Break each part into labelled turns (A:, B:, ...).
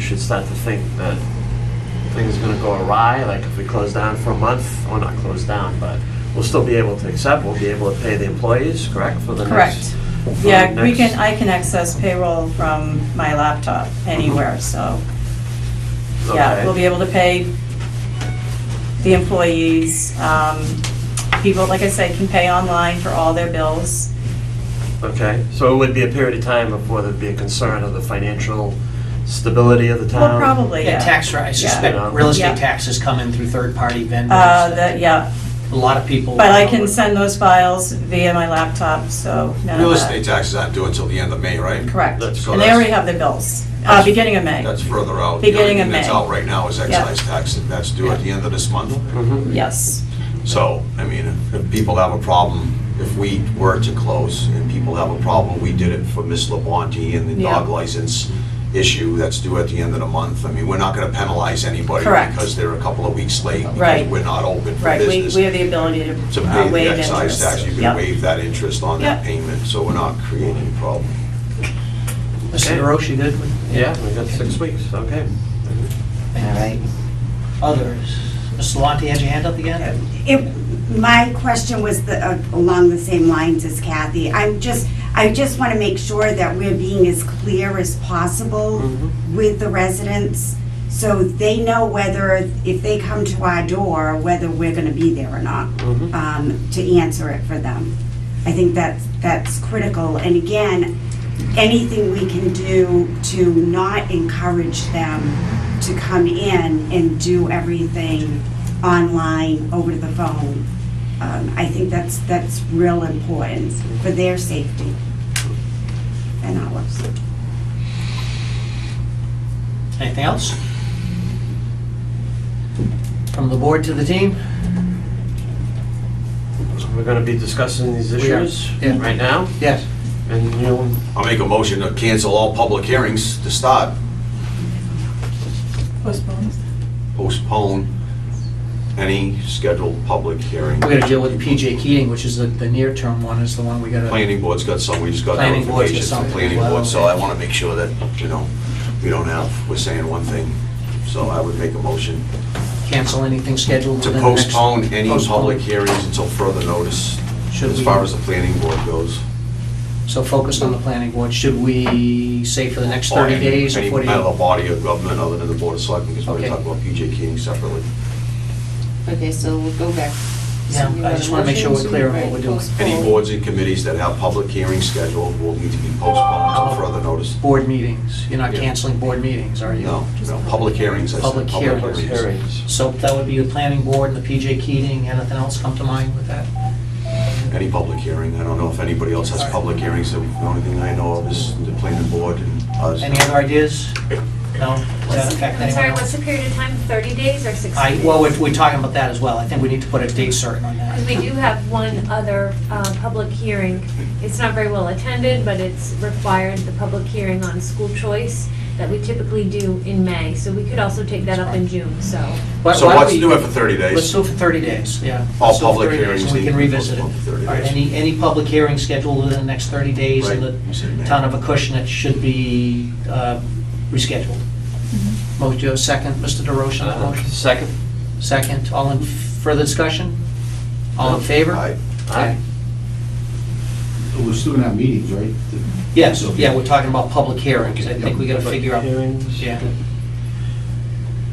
A: should start to think that things are gonna go awry, like if we close down for a month, or not close down, but we'll still be able to accept, we'll be able to pay the employees, correct, for the next?
B: Correct.
A: for the
B: Yeah, we
A: next-
B: can, I can access payroll from my laptop anywhere, so, yeah,
A: Okay.
B: we'll be able to pay the employees. Um, People, like I said, can pay online for all their bills.
A: Okay, so it would be a period of time before there'd be a concern of the financial stability of the town?
C: Um,
B: Well, probably,
D: Yeah,
B: yeah.
D: tax, ri- I
A: Yeah.
D: suspect real
B: Yeah.
D: estate taxes come in through third-party vendors.
B: Uh, that, yeah,
D: A lot of people.
B: but I can send those files via my laptop, so none
C: Real
B: of
C: estate
B: that.
C: taxes aren't due until the end of May, right?
B: Correct.
A: That's-
C: so
B: And they
C: that's-
B: already have their bills, uh, beginning of May.
C: That's further out.
B: Beginning of
C: The only thing That's
B: May.
C: out right now is excise tax, and that's due at the end of this month.
A: Mhm.
B: Yes,
C: So, I mean, if- if people have a problem, if we were to close and people have a problem, we did it for Miss Labonte and the
B: Yeah.
C: dog license issue that's due at the end of the month. I mean, we're not gonna penalize anybody
B: Correct.
C: because they're a couple of weeks late. because
B: Right.
C: We're not open for
B: right, we,
C: business.
B: we have the ability to
C: To
B: uh,
C: pay the
B: waive
C: excise
B: interest.
C: tax, you
B: Yep.
C: can waive that interest on that
B: Yep.
C: payment, so we're not creating a problem.
D: Mr. Hiroshi did.
A: Yeah, we got six weeks, okay.
D: All right. Others. Mr. Solante had your hand up again?
E: It, my question was the, uh, along the same lines as Kathy. I'm just, I just want to make sure that we're being as clear as possible
A: Mhm.
E: with the residents, so they know whether, if they come to our door, whether we're going to be there or not,
A: Mhm.
E: um, to answer it for them. I think that's, that's critical. And again, anything we can do to not encourage them to come in and do everything online, over the phone, um, I think that's, that's real important for their safety and ours.
D: Anything else? From the board to the team?
A: We're gonna be discussing these
D: We are,
A: issues
D: yeah.
A: right now,
D: Yes.
A: and you'll
C: I'll make a motion to cancel all public hearings to start, postpone any scheduled public hearing.
D: We're gonna deal with PJ Keating, which is the, the near-term one, is the one we gotta.
C: Planning board's got some, we just got
D: Planning board's got
C: notifications from
D: something
C: planning
D: as well.
C: board, so I want to make sure that, you know, we don't have, we're saying one thing. So I would make a motion
D: Cancel anything scheduled
C: to
D: within the next.
C: postpone any
D: postpone.
C: public hearings until further notice,
D: Should
C: as
D: we-
C: far as the planning board goes.
D: So focus on the planning board. Should we say for the next
C: Or
D: thirty
C: any-
D: days or
C: any
D: forty?
C: other body of government other than the board of selectmen, because we're going
D: Okay.
C: to talk about PJ Keating separately.
F: Okay, so we'll go back.
D: Yeah,
F: So you
D: I
F: want
D: just
F: a
D: wanna make sure we're
F: motion
D: clear on what
F: right,
D: we're doing.
F: postpone.
C: Any boards and committees that have public hearings scheduled will need to be postponed until further notice.
D: Board meetings. You're not
C: Yeah.
D: canceling board meetings, are you?
C: No, no, public hearings, I said.
D: Public
A: have
D: hearings.
A: hearings.
D: So that would be the planning board and the PJ Keating, anything else come to mind with that?
C: Any public hearing, I don't know if anybody else has public hearings, the only thing I know of is the planning board and us.
D: Any other ideas? No? Does that affect
G: I'm
D: anyone
G: sorry, what's
D: else?
G: the period of time, 30 days or 60
D: I,
G: days?
D: well, we're, we're talking about that as well, I think we need to put a date certain on
G: Because we
D: that.
G: do have one other uh, public hearing. It's not very well attended, but it's required, the public hearing on school choice that we typically do in May. So we could also take that up in June, so.
D: Why-
C: So
D: why don't
C: let's
D: we-
C: do it for 30
D: Let's
C: days.
D: do it for thirty days, yeah.
C: All
D: Let's do it for
C: public
D: 30 days,
C: hearings
D: and We
C: need
D: can
C: to be
D: revisit it.
C: postponed for 30
D: All right,
C: days.
D: any, any public hearing scheduled within the next thirty days in
C: Right, you said
D: the
C: May.
D: town of Acushnet should be, uh, rescheduled.
G: Mm-hmm.
D: Motion, do you have a second, Mr. DeRoche, on that
A: Uh,
D: motion?
A: Second?
D: Second, all in, further discussion? All in favor?
C: Uh, I-
D: Aye.
H: We're still gonna have meetings, right?
D: Yes, yeah, we're talking about public hearings, I think we gotta figure out,
A: Hearings?
D: yeah.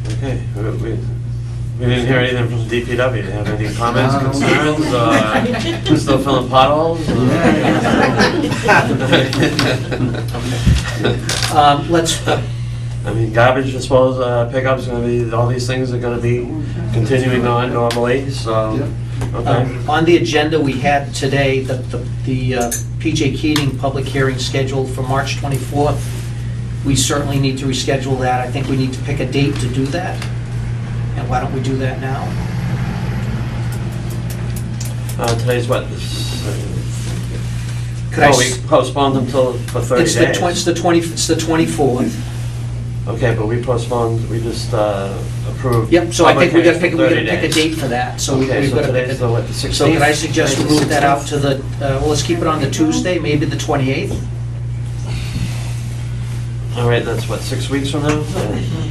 A: Okay, we, we we didn't hear anything from DPW, Do you have any comments,
H: No.
A: concerns, uh, still filling potholes? uh?
D: Um, Let's,
A: I mean, garbage disposal, uh, pickup's gonna be, all these things are gonna be continuing on normally, so, okay.
D: um, on the agenda we had today, the the the, uh, PJ Keating public hearing scheduled for March 24th. We certainly need to reschedule that, I think we need to pick a date to do that. And why don't we do that now?
A: Uh, today's what, this,
D: Could I
A: oh,
D: s-
A: we postponed until, for thirty
D: It's
A: days?
D: the twen- It's the 20, it's the 24th.
A: Okay, but we postponed, we just uh, approved.
D: Yep, so I think we gotta
A: public
D: pick, we gotta
A: hearing for
D: pick a
A: 30
D: date
A: days.
D: for that, so we-
A: Okay,
D: we've
A: so
D: gotta pick
A: today's the,
D: a...
A: what, the 16th?
D: So could I suggest we
A: Today's the
D: move that out
A: 16th?
D: to the, uh, well, let's keep it on the Tuesday, maybe the 28th?
A: All right, that's what, six weeks from now? Yeah.